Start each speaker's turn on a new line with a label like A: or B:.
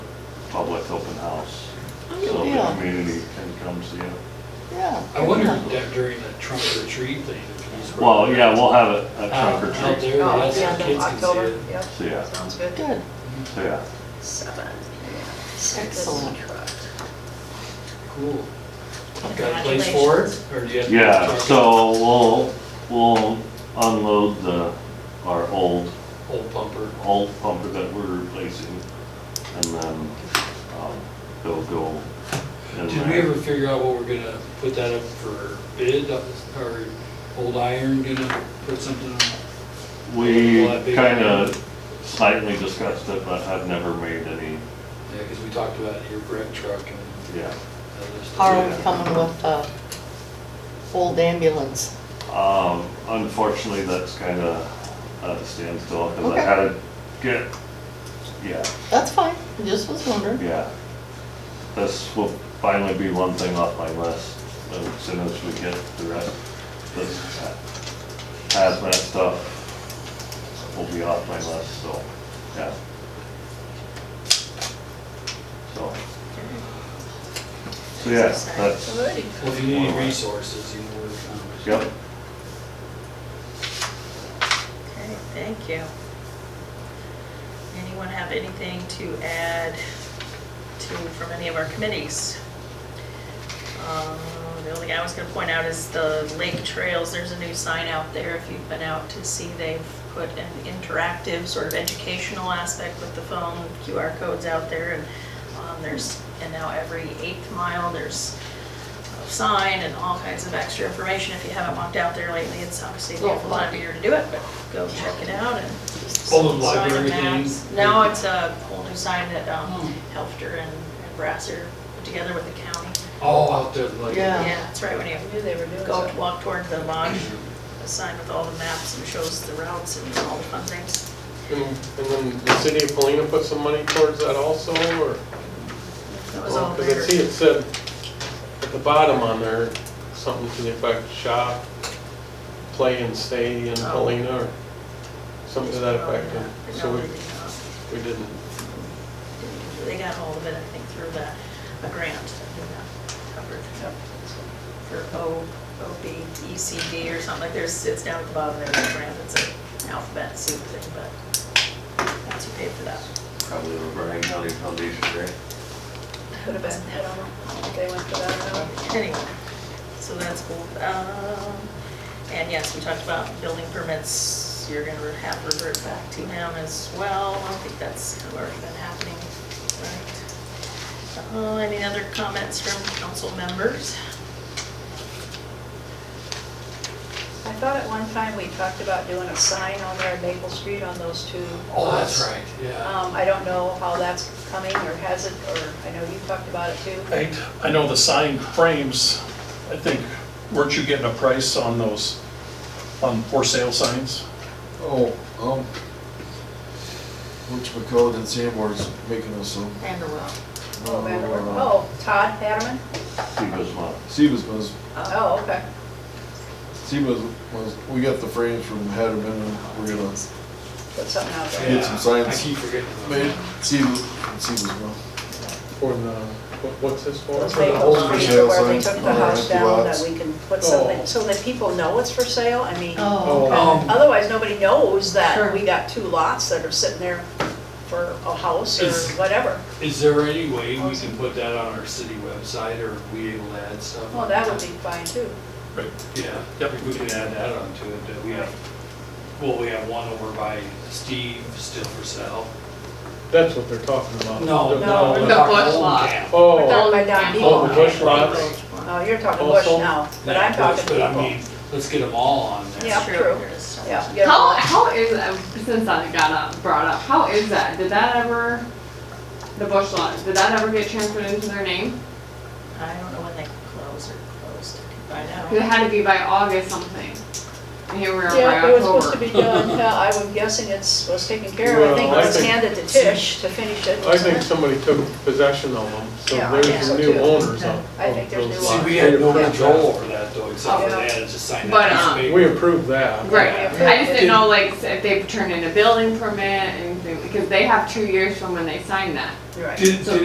A: public open house.
B: Oh,
A: So the
B: yeah.
A: community can come see it.
B: Yeah.
C: I wondered that during the trunk or treat thing. if he's-
A: Well, yeah, we'll have it at trunk
C: Out out
A: or treat.
C: there,
D: Oh,
C: yes,
D: it's the end
C: the
D: of
C: kids can see
D: October,
C: it.
D: yep.
A: So, yeah.
D: Sounds good.
B: Good.
A: So, yeah.
D: Seven, yeah. Six.
B: Excellent.
C: Cool. Got a place for it, or do you have? to
A: Yeah,
C: talk
A: so we'll, we'll unload the, our old,
C: to Old pumper.
A: old pumper that we're replacing. And then, um, they'll go in
C: Did we
A: there.
C: ever figure out what we're gonna put that up for bid, or old iron gonna put something on?
A: We
C: Well, that big-
A: kinda slightly discussed it, but I've never made any,
C: Yeah, because we talked about your brick truck and
A: yeah.
C: other stuff.
B: How are we coming with uh old ambulance?
A: Um, unfortunately, that's kinda at a standstill, cause I
B: Okay.
A: had to get, yeah,
B: That's fine, just was wondering.
A: yeah. This will finally be one thing off my list, as soon as we get the rest, this hazmat stuff will be off my list, so, yeah. So. So, yeah, that's,
C: Well, if you need any resources, you know where to come.
A: yep,
D: Okay, thank you. Anyone have anything to add to, from any of our committees? Um, The only thing I was gonna point out is the lake trails, there's a new sign out there, if you've been out to see, they've put an interactive sort of educational aspect with the phone, QR codes out there, and um, there's, and now every eighth mile, there's a sign and all kinds of extra information. If you haven't walked out there lately, it's obviously a beautiful time of year to do it, but go check it out and.
C: Old
D: sign
C: library
D: maps.
C: thing.
D: No, it's a whole new sign that um, Helfter and and Brasser put together with the county.
C: All out there, like.
B: Yeah.
D: Yeah, that's right, when you
E: I knew they were doing
D: go
E: something.
D: to walk toward the lodge, a sign with all the maps and shows the routes and all the fun things.
F: And and then the city of Polina put some money towards that also, or?
D: That was all
F: Because I see
D: there.
F: it said at the bottom on there, something to the effect, shop, play and stay in
D: Oh.
F: Polina, or something to that effect.
D: No,
F: and
D: they
F: So
D: did not.
F: we, we didn't.
D: They got hold of it, I think, through the, a grant that we got covered. For O, OBECD or something, like there's, it's down at the bottom, there's a grant, it's an alphabet soup thing, but that's who paid for that.
A: probably the Bryan County Foundation, right?
E: Could have been, I don't know, if they went for that or not.
D: Anyway, so that's cool. Um, And yes, we talked about building permits, you're gonna have revert back to them as well. I think that's kind of already been happening, right? Uh, Any other comments from council members?
E: I thought at one time we talked about doing a sign on there at Maple Street on those two
C: Oh, that's
E: lots.
C: right, yeah.
E: Um, I don't know how that's coming or has it, or I know you talked about it too.
G: I, I know the sign frames, I think, weren't you getting a price on those, on for sale signs?
H: Oh, um, which McCall and Sanborn's making us some.
D: And well.
E: Oh, remember?
H: uh,
E: Oh, Todd Hatterman?
A: Steve was one.
H: Sebas was,
E: Oh, okay.
H: Sebas was, we got the frames from Hatterman and we're gonna
E: Put something out there.
H: Need some
C: Yeah, I
H: signs.
C: keep forgetting. about
H: make
C: that.
H: Sebas, Sebas well.
F: For the, what- what's this for?
E: Those
C: For the
E: Maple
C: homes for
E: Street
H: sale
E: where they
H: signs
E: took
H: on
E: the
H: the
E: house
H: empty
E: down,
H: lots.
E: that we can put something,
F: Oh.
E: so that people know it's for sale, I mean.
F: Oh.
E: Otherwise, nobody knows
D: Sure.
E: that we got two lots that are sitting there for a house or
C: Is-
E: whatever.
C: Is there any way we can put that on our city website, or are we able to add stuff?
E: Well, that would be fine too.
C: Yeah, if we could add that onto it, that we have, well, we have one over by Steve, still for sale.
F: That's what they're talking about.
C: No,
E: No,
C: no.
E: the
C: we're talking
I: Bush
C: old
I: lot.
C: camp.
E: We're
F: Oh,
E: talking by Don
C: Oh,
E: Depot.
C: the Bush
D: Well,
C: lots.
E: Oh, you're talking Bush
F: Also-
E: now, but
C: Yeah,
E: I'm talking
C: But I mean,
E: Depot.
C: let's get them all on there.
E: Yeah,
D: True,
E: true.
D: there is some.
E: Yeah. get
I: How,
E: them.
I: how is, uh, since that got up, brought up, how is that? Did that ever, the bush lot, did that ever get transferred into their name?
D: I don't know when they close or closed, I
I: Cause it
D: know.
I: had to be by August something. And here we are by
E: Yeah, it was supposed to
I: October.
E: be done, yeah, I was guessing it's, was taken care of, I think it
F: Well, I
E: was
F: think-
E: handed to Tish to finish it,
F: I think
E: wasn't it?
F: somebody took possession of them, so
E: Yeah, I think
F: there's
E: so
F: some new
E: too.
F: owners of
E: I think
F: of
E: there's
F: those
E: new
C: See,
F: lots.
E: owners.
C: we had no
F: Yeah.
C: control over that though, except for
E: Yeah.
C: they had to just sign
I: But,
C: that piece of
I: um,
C: paper.
F: We approved that.
I: Right,
E: Yeah.
I: I just didn't know like if they turned in a building permit and, things- because they have two years from when they signed that.
E: You're right.
C: Did,
I: So
C: did